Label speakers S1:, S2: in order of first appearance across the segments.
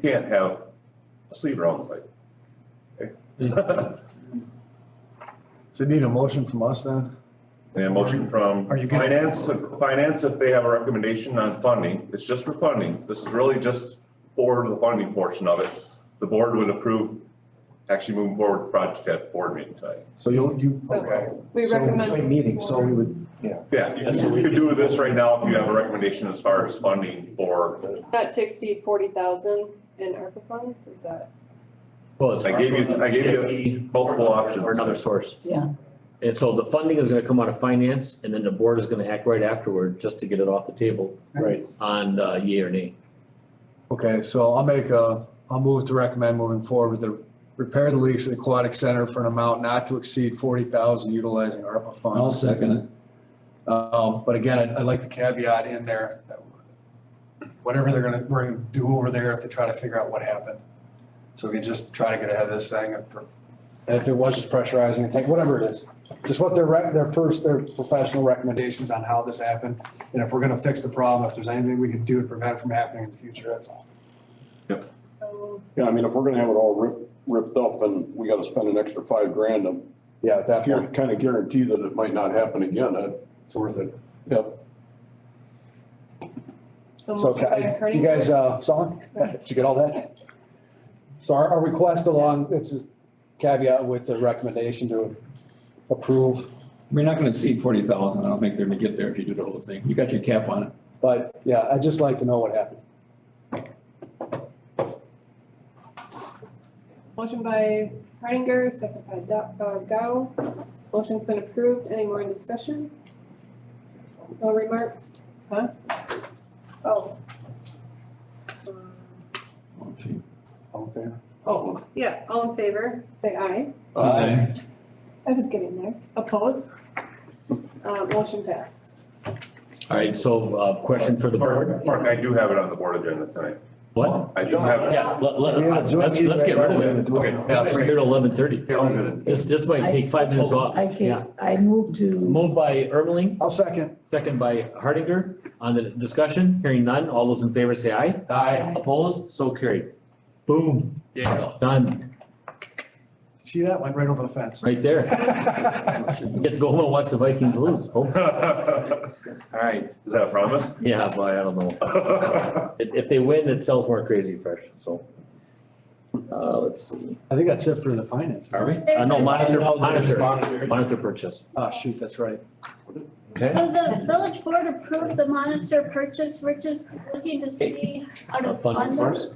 S1: can't have a sleeper on the bike. Okay?
S2: So you need a motion from us then?
S1: And a motion from
S2: Are you getting-
S1: finance, if- finance, if they have a recommendation on funding, it's just for funding. This is really just for the funding portion of it. The board would approve actually moving forward with the project at board meeting tonight.
S2: So you'll, you.
S3: Okay.
S4: So we
S2: so
S4: recommend.
S2: Joint meeting, so we would, yeah.
S1: Yeah, you can- you could do this right now if you have a recommendation as far as funding for,
S4: Not to exceed forty thousand in ARPA funds, is that?
S5: Well, it's.
S1: I gave you- I gave you multiple options.
S5: Or another source.
S6: Yeah.
S5: And so the funding is gonna come out of finance and then the board is gonna act right afterward just to get it off the table.
S2: Right.
S5: On uh yea or nay.
S2: Okay, so I'll make a, I'll move to recommend moving forward with the repair the leaks at Aquatic Center for an amount not to exceed forty thousand utilizing ARPA
S7: I'll
S2: funds.
S7: second it.
S2: Um, but again, I'd-
S3: Uh, I'd like the caveat in there, that whatever they're gonna, we're gonna do over there, if they try to figure out what happened. So we can just try to get ahead of this thing, and for- and if it was just pressurizing, it's like, whatever it is, just what their, rec- their pers, their professional recommendations on how this happened, and if we're gonna fix the problem, if there's anything we can do to prevent it from happening in the future, that's all.
S4: So
S8: Yeah, I mean, if we're gonna have it all ripped, ripped up and we gotta spend an extra five grand to
S3: Yeah, at that point,
S8: kind of guarantee that it might not happen again, uh,
S3: it's worth it.
S8: yep.
S3: So,
S4: motion by
S3: okay, I-
S4: Kearney.
S3: you guys, uh, saw it? Did you get all that? So our, our request along, it's a caveat with the recommendation to approve,
S7: We're not gonna exceed forty thousand. I don't think they're gonna get there if you do the whole thing. You got your cap on it.
S3: but yeah, I'd just like to know what happened.
S4: Motion by Hardinger, second by Do- uh, Gao. Motion's been approved. Any more in discussion? No remarks? Huh? Oh. Um,
S3: All in favor?
S4: Oh, yeah, all in favor, say aye.
S7: Aye.
S4: I was getting there. Opposed? Uh, motion passed.
S5: All right, so uh question for the
S1: Mark,
S5: board.
S1: Mark, I do have it on the board agenda tonight.
S5: What?
S1: I do have it.
S5: Yeah, let
S2: We have a
S5: let
S2: joint
S5: let's let's get rid of it.
S2: Yeah,
S5: Let's Here at eleven thirty.
S1: Sounds good.
S5: This this might take five minutes off.
S6: I
S5: Yeah.
S6: can, I move to,
S5: Moved by Ermeling,
S2: I'll second.
S5: second by Hardinger. On the discussion, hearing none, all those in favor say aye.
S2: Aye.
S5: Opposed, so carried. Boom. Yeah. Done,
S3: See that? Went right over the fence.
S5: right there. Get to go home and watch the Vikings lose. All right,
S1: Is that a promise?
S5: yeah, but I don't know. If, if they win, it sells more crazy fresh, so. Uh, let's see.
S2: I think that's it for the finance.
S5: Are we? Uh, no, monitor, monitor, monitor purchase.
S2: Ah, shoot, that's right.
S5: Okay,
S9: So the village board approved the monitor purchase, we're just looking to see out
S5: a
S9: of
S5: funding
S9: fund.
S5: source.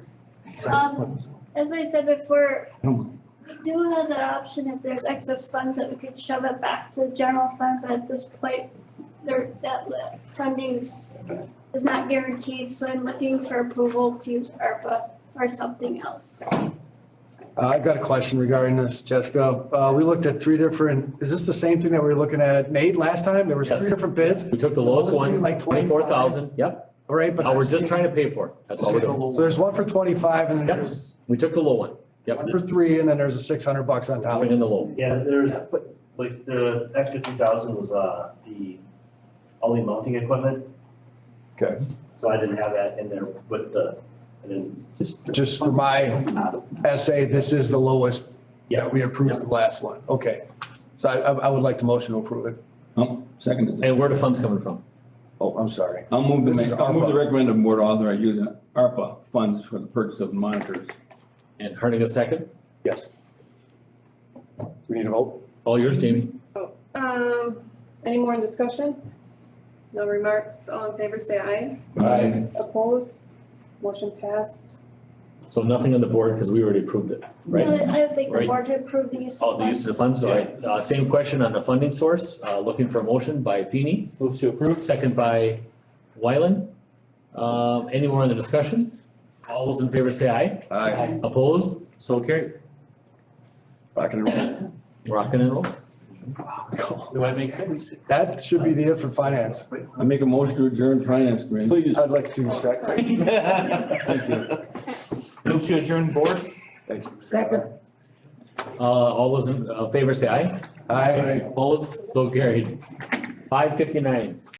S9: Um, as I said before,
S2: I don't mind.
S9: we do have that option if there's excess funds that we could shove it back to the general fund, but at this point, there, that li- funding's is not guaranteed, so I'm looking for approval to use ARPA or something else.
S2: Uh, I've got a question regarding this, Jessica. Uh, we looked at three different, is this the same thing that we were looking at Nate last time? There was
S5: Yes.
S2: three different bids,
S5: We took the lowest one,
S2: Like 25.
S5: twenty-four thousand, yep.
S2: all right? but
S5: Now, we're
S2: that's-
S5: just trying to pay for it. That's all we're doing.
S2: So there's one for twenty-five and then
S5: Yep.
S2: there's
S5: We took the low one. Yep.
S2: one for three and then there's a six hundred bucks on top.
S5: Bring in the low.
S10: Yeah, there's, like, the extra two thousand was, uh, the, all the mounting equipment.
S3: Okay.
S10: So I didn't have that in there with the, it is,
S3: Just for my essay, this is the lowest
S10: yeah,
S3: that we approved the last one. Okay.
S2: So I, I I would like to motion to approve it.
S7: I'll second it.
S5: And where the funds coming from?
S3: Oh, I'm sorry.
S7: I'll move to
S2: This is
S7: make, I'll move
S2: ARPA.
S7: to recommend the board authorize using ARPA funds for the purchase of monitors.
S5: And Harding a second?
S3: Yes. We need a vote?
S5: All yours, Jamie.
S4: Um, any more in discussion? No remarks. All in favor, say aye.
S7: Aye.
S4: Opposed? Motion passed.
S5: So nothing on the board because we already approved it, right?
S9: Really, I would think the
S5: Right.
S9: board to approve the use of
S5: Oh, the use of the funds, all right. Uh, same question on the funding source, uh, looking for a motion by Feeny. Move to approve. Second by Wyland. Um, any more on the discussion? All those in favor say aye.
S2: Aye.
S5: Opposed? So carried.
S2: Rock and roll.
S5: Rockin' and roll. Do I make
S10: sense?
S2: That should be the it for finance.
S7: I make a motion to adjourn finance committee.
S8: Please.
S2: I'd like to
S4: Oh,
S2: second.
S4: sorry.
S7: Thank you.
S10: Move to adjourn board?
S2: Thank you.
S6: second,
S5: Uh, all those in uh, favor say aye.
S2: Aye.
S5: Opposed? So carried. Five fifty-nine.